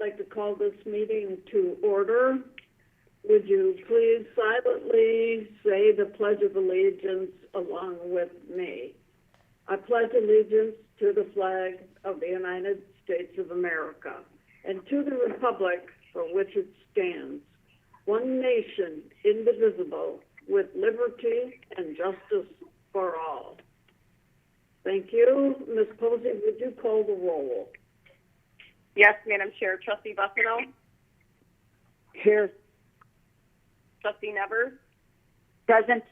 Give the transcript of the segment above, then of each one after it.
like to call this meeting to order. Would you please silently say the Pledge of Allegiance along with me? I pledge allegiance to the flag of the United States of America and to the republic for which it stands, one nation, indivisible, with liberty and justice for all. Thank you. Ms. Posey, would you call the roll? Yes, Madam Chair. Trustee Bucino, Here. Trustee Nevers, Present.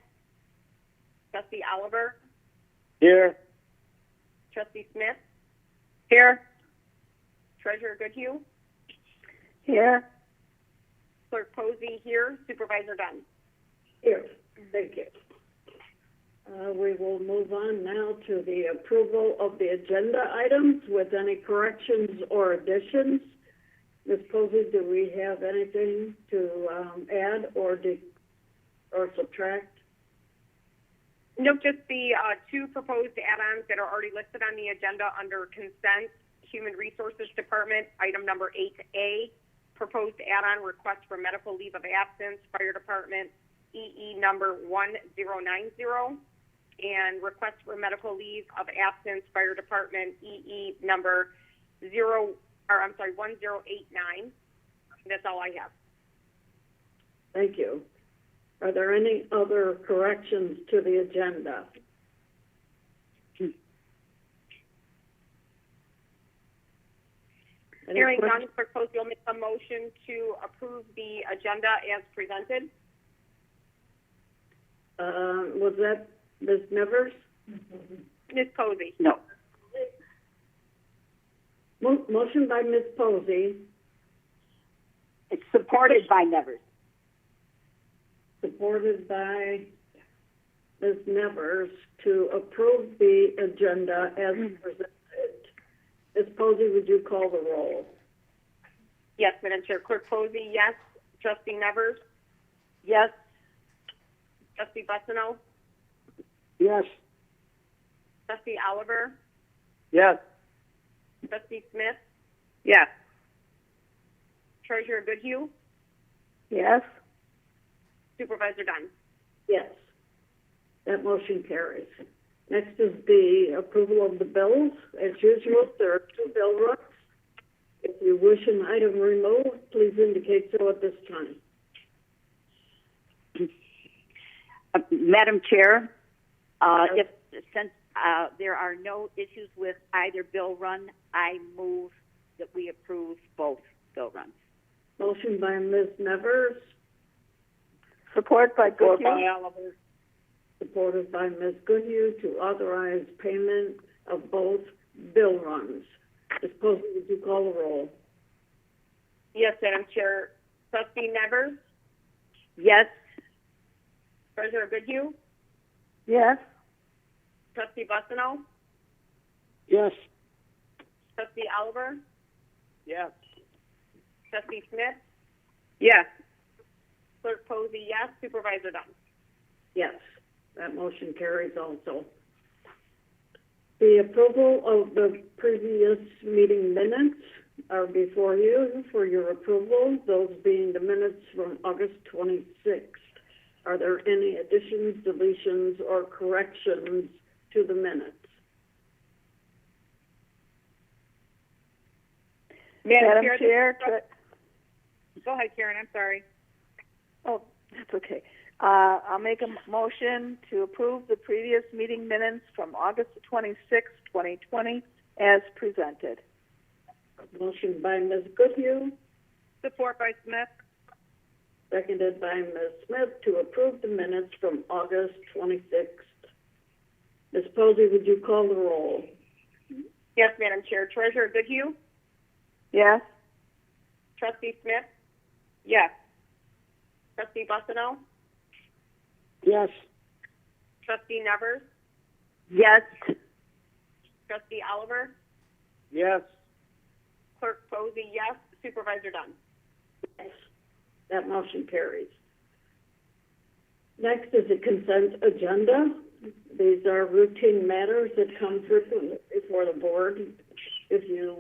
Trustee Oliver, Here. Trustee Smith. Here. Treasurer Goodhue, Here. Clerk Posey here, Supervisor Dunn. Here. Thank you. Uh, we will move on now to the approval of the agenda items with any corrections or additions. Ms. Posey, do we have anything to, um, add or de- or subtract? Nope, just the uh, two proposed add-ons that are already listed on the agenda under consent, Human Resources Department, item number 8A, proposed add-on request for medical leave of absence, Fire Department, EE number 1090, and request for medical leave of absence, Fire Department, EE number 0, or I'm sorry, 1089. That's all I have. Thank you. Are there any other corrections to the agenda? Any Hearing questions? none, Clerk Posey will make a motion to approve the agenda as presented. Uh, was that Ms. Nevers? Ms. Posey? No. Mo- motion by Ms. Posey, It's supported by Nevers. supported by Ms. Nevers, to approve the agenda as presented. Ms. Posey, would you call the roll? Yes, Madam Chair. Clerk Posey, yes. Trustee Nevers? Yes. Trustee Bucino? Yes. Trustee Oliver? Yes. Trustee Smith? Yes. Treasurer Goodhue? Yes. Supervisor Dunn? Yes. That motion carries. Next is the approval of the bills. As usual, there are two bill runs. If you wish an item removed, please indicate so at this time. Uh, Madam Chair, uh, Yes. if, since, uh, there are no issues with either bill run, I move that we approve both bill runs. Motion by Ms. Nevers, Support by Support by Oliver, supported by Ms. Goodhue to authorize payment of both bill runs. Ms. Posey, would you call the roll? Yes, Madam Chair. Trustee Nevers? Yes. Treasurer Goodhue? Yes. Trustee Bucino? Yes. Trustee Oliver? Yes. Trustee Smith? Yes. Clerk Posey, yes. Supervisor Dunn? Yes, that motion carries also. The approval of the previous meeting minutes are before you for your approval, those being the minutes from August 26th. Are there any additions, deletions, or corrections to the minutes? Madam Chair. Go ahead, Karen. I'm sorry. Oh, that's okay. Uh, I'll make a m- motion to approve the previous meeting minutes from August twenty-sixth, twenty twenty, as presented. Motion by Ms. Goodhue, Support by Smith? seconded by Ms. Smith to approve the minutes from August 26th. Ms. Posey, would you call the roll? Yes, Madam Chair. Treasurer Goodhue? Yes? Trustee Smith? Yes. Trustee Bucino? Yes. Trustee Nevers? Yes. Trustee Oliver? Yes. Clerk Posey, yes. Supervisor Dunn? Yes. That motion carries. Next is the consent agenda. These are routine matters that come frequently before the board. If you